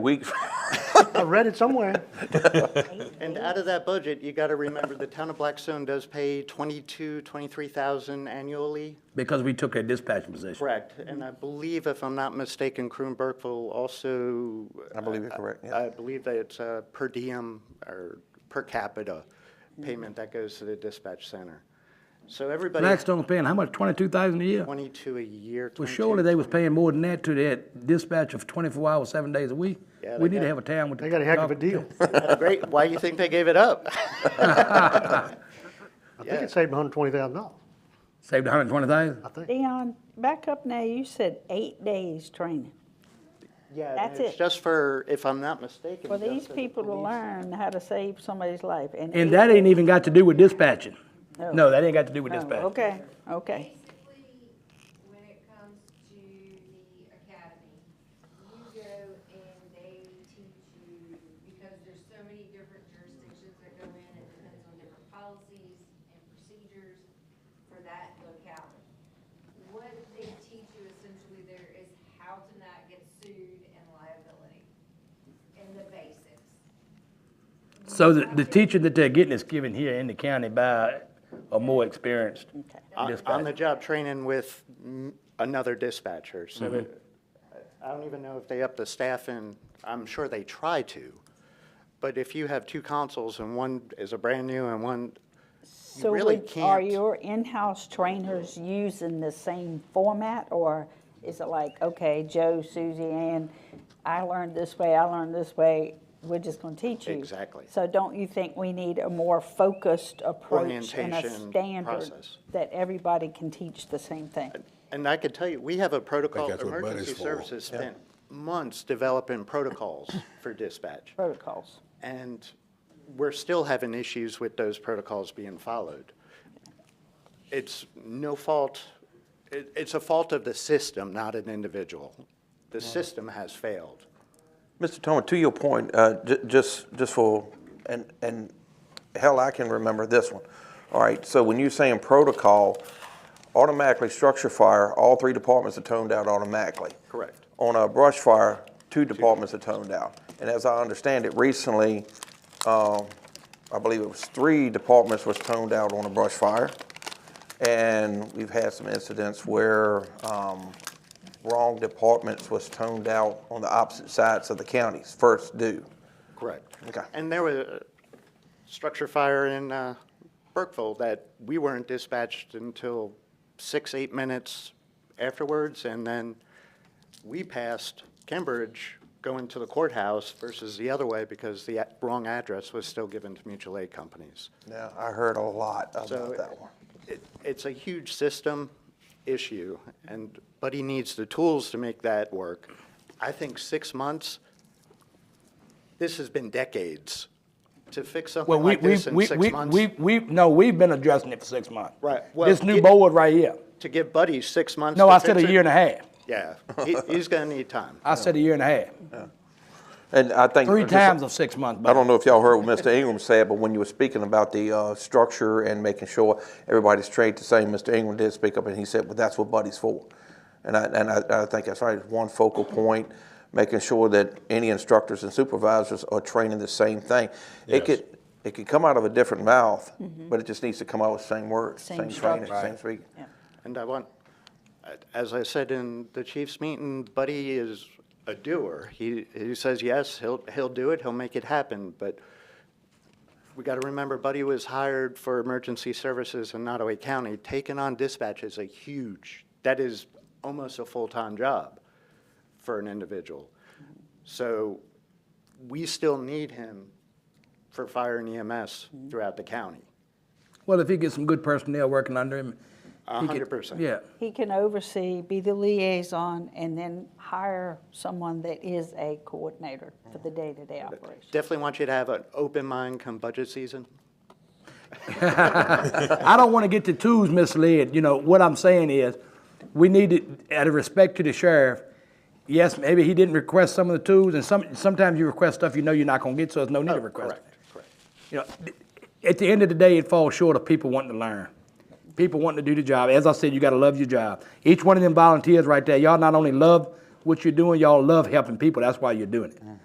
We, I read it somewhere. And out of that budget, you got to remember, the town of Blackstone does pay 22, 23,000 annually. because we took a dispatching position. Correct. And I believe, if I'm not mistaken, Croon Burkeville also. uh, I believe you're correct, yeah. I believe that it's a per diem or per capita payment that goes to the dispatch center. So everybody, Blackstone's paying how much, twenty-two thousand a year? 22 a year. Well, 22. surely they was paying more than that to that dispatch of twenty-four hours, seven days a week. Yeah, We they need to got- have a town with. They got a heck of a deal. Great, why do you think they gave it up? I think it saved hundred twenty thousand dollars, Saved a hundred and twenty thousand? I think. Dion, back up now, you said eight days training. Yeah, That's it's it. just for, if I'm not mistaken. For just these the people to police. learn how to save somebody's life and. And that ain't even got to do with dispatching. No. No, that ain't got to do with Oh, dispatch. Okay, okay. Basically, when it comes to the academy, you go and they teach you, because there's so many different jurisdictions that go in, it depends on different policies and procedures for that locality. What they teach you essentially there is how to not get sued and liability, and the basics. So the, the teaching that they're getting is given here in the county by a more experienced on- on the dispatcher. job training with mm, another dispatcher, so it- I don't even know if they up the staff and I'm sure they try to. But if you have two consoles and one is a brand new and one, So really would- Are can't- your in-house trainers using the same format or is it like, okay, Joe, Susie, Ann, I learned this way, I learned this way, we're just gonna teach you? Exactly. So don't you think we need a more focused approach and a Orientation standard process. that everybody can teach the same thing? and I can tell you, we have a protocol, that's what money's emergency for. services spent months developing protocols for dispatch. Protocols. And we're still having issues with those protocols being followed. It's no fault, it, it's a fault of the system, not an individual. The system has failed. Mr. Tillman, to your point, uh, ju- just, just for, and, and hell, I can remember this one. All right, so when you're saying protocol, automatically structure fire, all three departments are toned out automatically. Correct. On a brush fire, two departments are toned out. And as I understand it, recently, um, I believe it was three departments was toned out on a brush fire. And we've had some incidents where um, wrong departments was toned out on the opposite sides of the counties, first due. Correct. Okay. And there was a structure fire in uh, Burkeville that we weren't dispatched until six, eight minutes afterwards, and then we passed Cambridge going to the courthouse versus the other way because the a- wrong address was still given to mutual aid companies. Now, I heard a lot So about that one. it- It's a huge system issue, and, but he needs the tools to make that work. I think six months, this has been decades. To fix Well, something we, like we, this in we, six we, we, months, we, no, we've been addressing it for six months. Right, well, This new it- board right here. to give Buddy six months No, to I said fix a it- year and a half. Yeah, he- he's going to need time. I said a year and a half. And I think. Three just- times of six months. I don't know if y'all heard what Mr. Ingram said, but when you were speaking about the uh, structure and making sure everybody's trained the same, Mr. Ingram did speak up and he said, well, that's what Buddy's for. And I, and I, I think that's right, one focal point, making sure that any instructors and supervisors are training the same thing. It could, it could come out of a different mouth, but it just needs to come out with the same words, Mm-hmm. Same same training, structure. same speaking. And I want, as I said in the chief's meeting, Buddy is a doer. He, he says, yes, he'll, he'll do it, he'll make it happen, but we got to remember Buddy was hired for emergency services in Nottaway County. Taking on dispatch is a huge, that is almost a full-time job for an individual. So we still need him for fire and EMS throughout the county. Well, if he gets some good personnel working under him. A he could- hundred percent. Yeah. He can oversee, be the liaison, and then hire someone that is a coordinator for the day-to-day operation. Definitely want you to have an open mind come budget season. I don't want to get the twos misled. You know, what I'm saying is, we need to, out of respect to the sheriff, yes, maybe he didn't request some of the twos, and some, sometimes you request stuff you know you're not gonna get, so there's no need to request it. Oh, Correct, correct. You know, th- at the end of the day, it falls short of people wanting to learn. People wanting to do the job. As I said, you gotta love your job. Mm-hmm. Each one of them volunteers right there, y'all not only love what you're doing, y'all love helping people. That's why you're doing it.